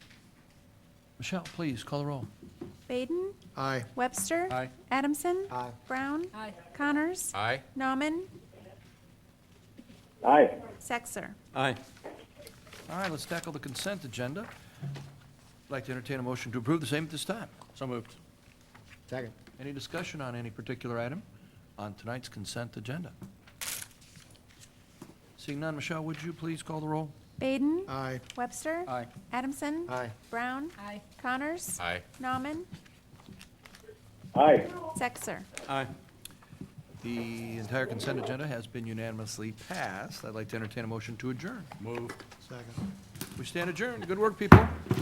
Michelle, please, call the roll. Baden, Aye. Webster. Aye. Adamson. Aye. Brown. Connors. Aye. Nauman. aye, Sexer. Aye. All right, let's tackle the consent agenda. I'd like to entertain a motion to approve the same at this time. So moved. Second. Any discussion on any particular item on tonight's consent agenda? Seeing none, Michelle, would you please call the roll? Baden. Aye. Webster. Aye. Adamson. Aye. Brown. Connors. Aye. Nauman. aye, Sexer. Aye. The entire consent agenda has been unanimously passed. I'd like to entertain a motion to adjourn. Moved. Second. We stand adjourned. Good work, people.